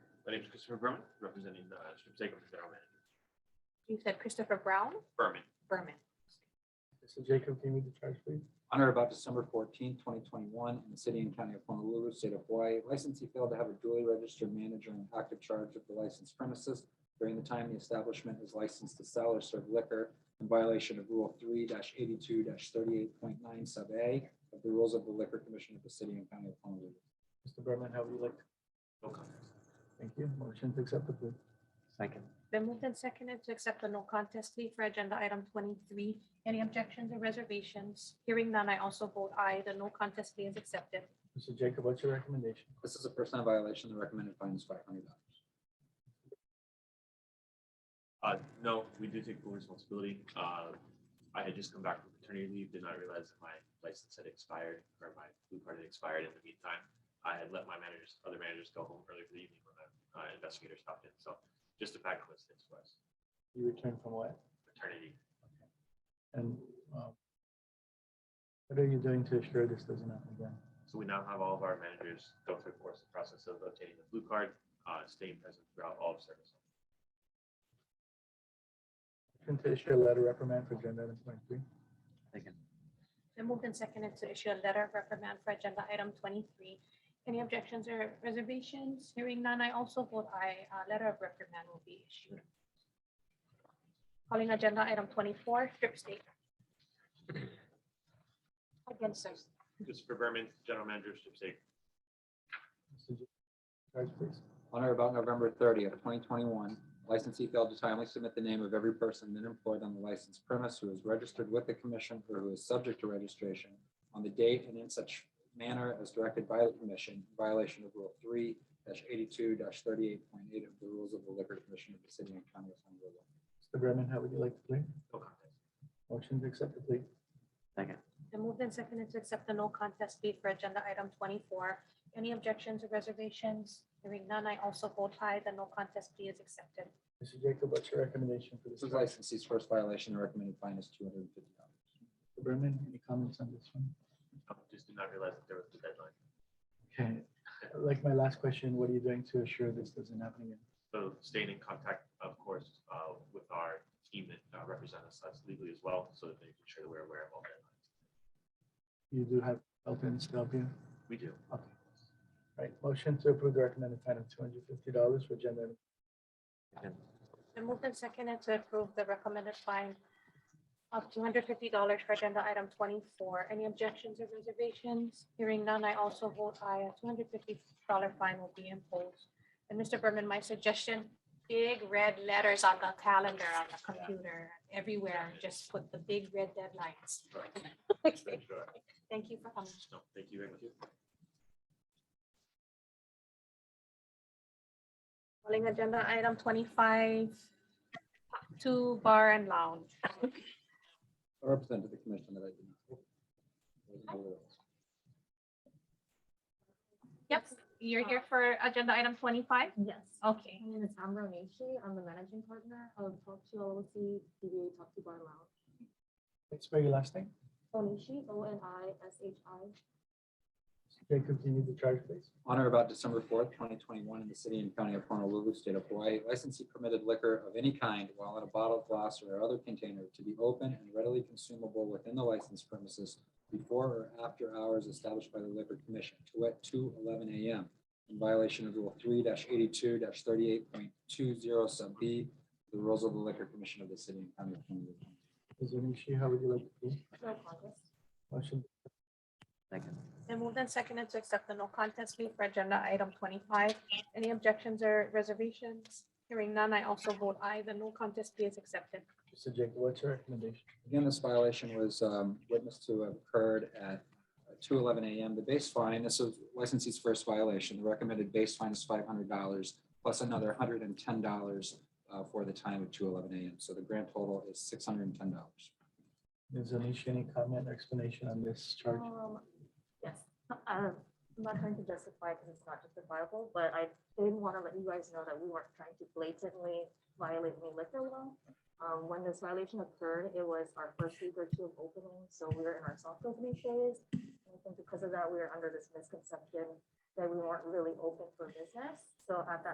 My name is Christopher Berman, representing the Strip Steakhouse General Manager. You said Christopher Brown, Berman. Berman. Mr. Jacob, can you read the charge, please? on or about December fourteenth, twenty twenty-one, in the city and county of Honolulu, state of Hawaii. Licensee failed to have a duly registered manager in active charge of the licensed premises during the time the establishment is licensed to sell or serve liquor in violation of Rule three eighty-two thirty-eight point nine sub A of the rules of the Liquor Commission of the city and county of Honolulu. Mr. Berman, how would you like? No comment. Thank you. Motion to accept the plea. Second. Then moved and seconded to accept the no contest plea for agenda item twenty-three. Any objections or reservations? Hearing none, I also vote aye. The no contest plea is accepted. Mr. Jacob, what's your recommendation? This is a first time violation. The recommended fine is five hundred dollars. Uh, no, we do take full responsibility. Uh, I had just come back from paternity leave, did not realize that my license had expired or my blue card had expired in the meantime. I had let my managers, other managers go home early for the evening when the uh, investigator stopped in. So just a fact was this was You returned from what? paternity. And um, what are you doing to assure this doesn't happen again? So we now have all of our managers go through, of course, the process of obtaining the blue card, uh, staying present throughout all of service. Motion to issue a letter reprimand for agenda item twenty-three. Second. Then moved and seconded to issue a letter of reprimand for agenda item twenty-three. Any objections or reservations? Hearing none, I also vote aye. A letter of reprimand will be issued. Calling agenda item twenty-four, strip state. Again, sir. Christopher Berman, General Manager of Strip Steak. Mr. Jacob, Charge, please. On or about November thirtieth, twenty twenty-one, licensee failed to timely submit the name of every person then employed on the licensed premise who is registered with the commission or who is subject to registration on the date and in such manner as directed by the commission, in violation of Rule three eighty-two thirty-eight point eight of the rules of the Liquor Commission of the City and County of Honolulu. Mr. Berman, how would you like to plea? No contest. Motion to accept the plea. Second. Then moved and seconded to accept the no contest plea for agenda item twenty-four. Any objections or reservations? Hearing none, I also vote aye. The no contest plea is accepted. Mr. Jacob, what's your recommendation for this? This is charge? licensee's first violation, the recommended fine is two hundred and fifty dollars. Mr. Berman, any comments on this one? I Just did not realize that there was a deadline. Okay, like my last question, what are you doing to assure this doesn't happen again? So staying in contact, of course, uh, with our team that uh, represent us us legally as well, so that they make sure that we're aware of all deadlines. You do have Elton's to help you? We do. Okay. Right, motion to approve the recommended fine of two hundred fifty dollars for agenda. item- Then moved and seconded to approve the recommended fine of two hundred fifty dollars for agenda item twenty-four. Any objections or reservations? Hearing none, I also vote aye. A two hundred fifty dollar fine will be imposed. And Mr. Berman, my suggestion, big red letters on the calendar, on the computer, everywhere, just put the big red deadlines. Right. Okay, Sure. Thank you for coming. No, thank you very much. Calling agenda item twenty-five, to bar and lounge. I represent to the commission that I did not. wasn't aware of. Yep, you're here for agenda item twenty-five? Yes. Okay. My name is Amber Meshi. I'm the managing partner of Talk to LLC, DBA Talk to Bar Lounge. Let's spell your last name. Onishi, O N I S H I. Jacob, can you read the charge, please? On or about December fourth, twenty twenty-one, in the city and county of Honolulu, state of Hawaii, licensee permitted liquor of any kind while in a bottle, glass, or other container to be open and readily consumable within the licensed premises before or after hours established by the liquor commission, to wit, two eleven AM, in violation of Rule three eighty-two thirty-eight point two zero sub B, the rules of the liquor commission of the city and county of Honolulu. Ms. Onishi, how would you like to plead? No contest. Motion, Second. Then moved and seconded to accept the no contest plea for agenda item twenty-five. Any objections or reservations? Hearing none, I also vote aye. The no contest plea is accepted. Mr. Jacob, what's your recommendation? Again, this violation was um, witnessed to have occurred at two eleven AM. The base fine, this is licensee's first violation. The recommended base fine is five hundred dollars plus another hundred and ten dollars uh, for the time of two eleven AM. So the grand total is six hundred and ten dollars. Ms. Onishi, any comment or explanation on this charge? Um, yes, Uh, I'm not trying to justify because it's not justifiable, but I did want to let you guys know that we weren't trying to blatantly violate any liquor law. Um, when this violation occurred, it was our first week or two of opening, so we were in our soft opening phase. And I think because of that, we were under this misconception that we weren't really open for business. So at that